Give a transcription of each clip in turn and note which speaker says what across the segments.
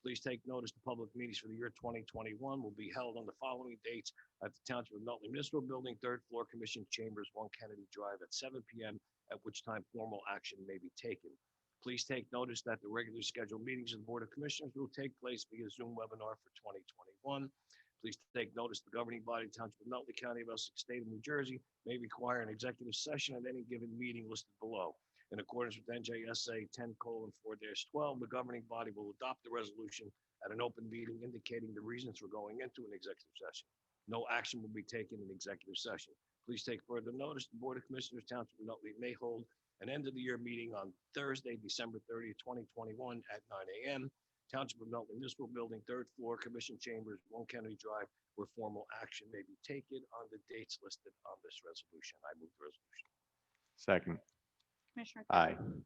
Speaker 1: Please take notice, the public meetings for the year 2021 will be held on the following dates at the Township of Nutley Municipal Building, third floor, Commission Chambers, 1 Kennedy Drive at 7 PM, at which time formal action may be taken. Please take notice that the regularly scheduled meetings of the Board of Commissioners will take place via Zoom webinar for 2021. Please take notice the governing body, Township of Nutley County of Essex State of New Jersey, may require an executive session at any given meeting listed below. In accordance with NJSA 10:4-12, the governing body will adopt the resolution at an open meeting indicating the reasons for going into an executive session. No action will be taken in executive session. Please take further notice, the Board of Commissioners Township of Nutley may hold an end-of-the-year meeting on Thursday, December 30th, 2021 at 9 a.m. Township of Nutley Municipal Building, third floor, Commission Chambers, 1 Kennedy Drive, where formal action may be taken on the dates listed on this resolution. I move the resolution.
Speaker 2: Second.
Speaker 3: Commissioner
Speaker 2: Aye.
Speaker 3: Kelly.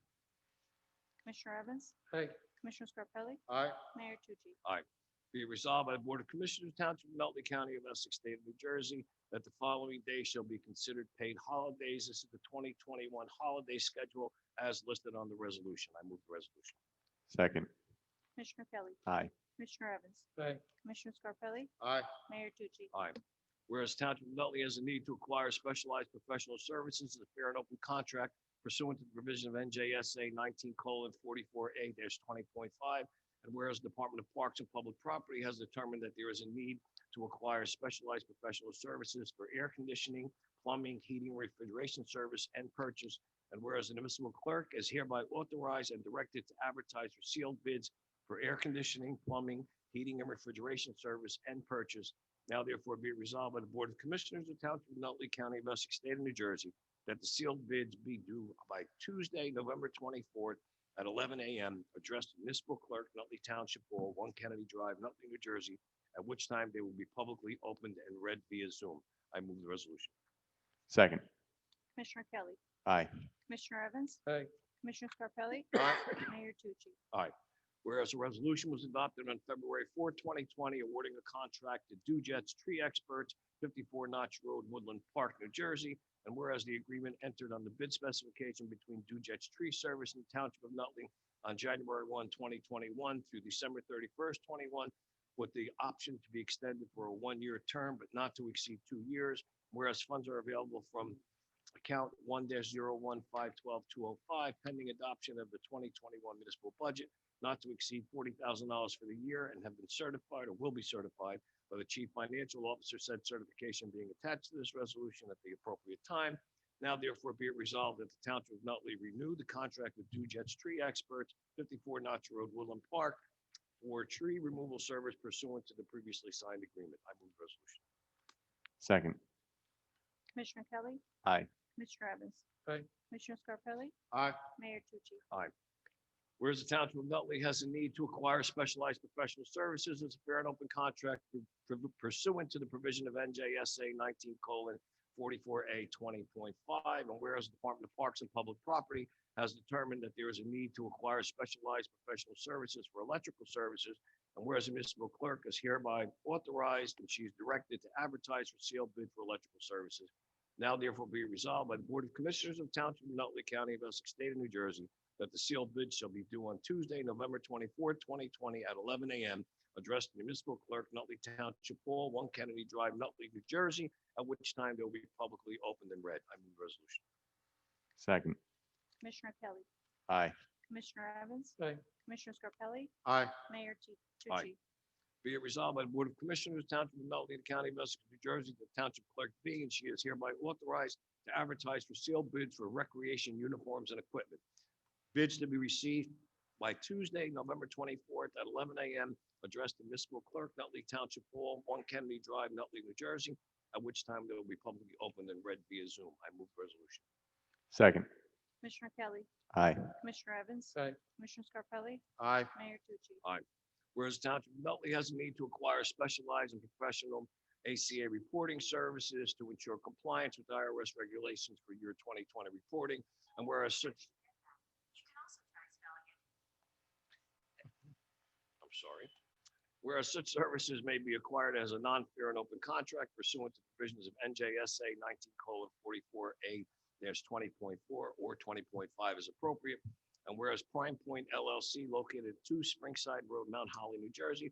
Speaker 3: Commissioner Evans.
Speaker 4: Aye.
Speaker 3: Commissioner Scarpelli.
Speaker 4: Aye.
Speaker 3: Mayor Tucci.
Speaker 1: Be it resolved by the Board of Commissioners, Township of Nutley County of Essex, State of New Jersey, that the following days shall be considered paid holidays. This is the 2021 holiday schedule as listed on the resolution. I move the resolution.
Speaker 2: Second.
Speaker 3: Commissioner Kelly.
Speaker 2: Aye.
Speaker 3: Commissioner Evans.
Speaker 4: Aye.
Speaker 3: Commissioner Scarpelli.
Speaker 4: Aye.
Speaker 3: Mayor Tucci.
Speaker 1: Whereas Township of Nutley has a need to acquire specialized professional services as a fair and open contract pursuant to the provision of NJSA 19:44A-20.5. And whereas the Department of Parks and Public Property has determined that there is a need to acquire specialized professional services for air conditioning, plumbing, heating, refrigeration service, and purchase. And whereas the municipal clerk is hereby authorized and directed to advertise for sealed bids for air conditioning, plumbing, heating, and refrigeration service and purchase. Now therefore be it resolved by the Board of Commissioners of Township of Nutley County of Essex State of New Jersey that the sealed bids be due by Tuesday, November 24th at 11 a.m. addressed to municipal clerk, Nutley Township Hall, 1 Kennedy Drive, Nutley, New Jersey, at which time they will be publicly opened and read via Zoom. I move the resolution.
Speaker 2: Second.
Speaker 3: Commissioner Kelly.
Speaker 2: Aye.
Speaker 3: Commissioner Evans.
Speaker 4: Aye.
Speaker 3: Commissioner Scarpelli. Mayor Tucci.
Speaker 1: Whereas a resolution was adopted on February 4, 2020, awarding a contract to Dujet's Tree Experts, 54 Notch Road, Woodland Park, New Jersey. And whereas the agreement entered on the bid specification between Dujet's Tree Service and Township of Nutley on January 1, 2021 through December 31st, 21, with the option to be extended for a one-year term but not to exceed two years. Whereas funds are available from account 1-01512205 pending adoption of the 2021 municipal budget not to exceed forty thousand dollars for the year and have been certified or will be certified by the chief financial officer, said certification being attached to this resolution at the appropriate time. Now therefore be it resolved that the township of Nutley renew the contract with Dujet's Tree Experts, fifty-four Notch Road, Woodland Park, for tree removal service pursuant to the previously signed agreement. I move the resolution.
Speaker 2: Second.
Speaker 3: Commissioner Kelly.
Speaker 2: Aye.
Speaker 3: Commissioner Evans.
Speaker 4: Aye.
Speaker 3: Commissioner Scarpelli.
Speaker 4: Aye.
Speaker 3: Mayor Tucci.
Speaker 1: Whereas the Township of Nutley has a need to acquire specialized professional services as a fair and open contract pursuant to the provision of NJSA 19:44A20.5. And whereas the Department of Parks and Public Property has determined that there is a need to acquire specialized professional services for electrical services. And whereas the municipal clerk is hereby authorized and she is directed to advertise for sealed bid for electrical services. Now therefore be resolved by the Board of Commissioners of Township of Nutley County of Essex State of New Jersey that the sealed bid shall be due on Tuesday, November 24, 2020, at 11 a.m., addressed to the municipal clerk, Nutley Township Hall, 1 Kennedy Drive, Nutley, New Jersey, at which time they'll be publicly opened and read. I move the resolution.
Speaker 2: Second.
Speaker 3: Commissioner Kelly.
Speaker 2: Aye.
Speaker 3: Commissioner Evans.
Speaker 4: Aye.
Speaker 3: Commissioner Scarpelli.
Speaker 4: Aye.
Speaker 3: Mayor Tu-
Speaker 1: Aye.
Speaker 3: Tucci.
Speaker 1: Be it resolved by the Board of Commissioners, Township of Nutley, the County of Essex, New Jersey, the Township Clerk being, and she is hereby authorized to advertise for sealed bids for recreation uniforms and equipment. Bids to be received by Tuesday, November 24th at 11 a.m., addressed to municipal clerk, Nutley Township Hall, 1 Kennedy Drive, Nutley, New Jersey, at which time they will be publicly opened and read via Zoom. I move the resolution.
Speaker 2: Second.
Speaker 3: Commissioner Kelly.
Speaker 2: Aye.
Speaker 3: Commissioner Evans.
Speaker 4: Aye.
Speaker 3: Commissioner Scarpelli.
Speaker 4: Aye.
Speaker 3: Mayor Tucci.
Speaker 1: Whereas Township of Nutley has a need to acquire specialized and professional ACA reporting services to ensure compliance with IRS regulations for year 2020 reporting. And whereas such. I'm sorry. Whereas such services may be acquired as a non-fair and open contract pursuant to provisions of NJSA 19:44A-20.4 or 20.5 as appropriate. And whereas Prime Point LLC located at two Springside Road, Mount Holly, New Jersey,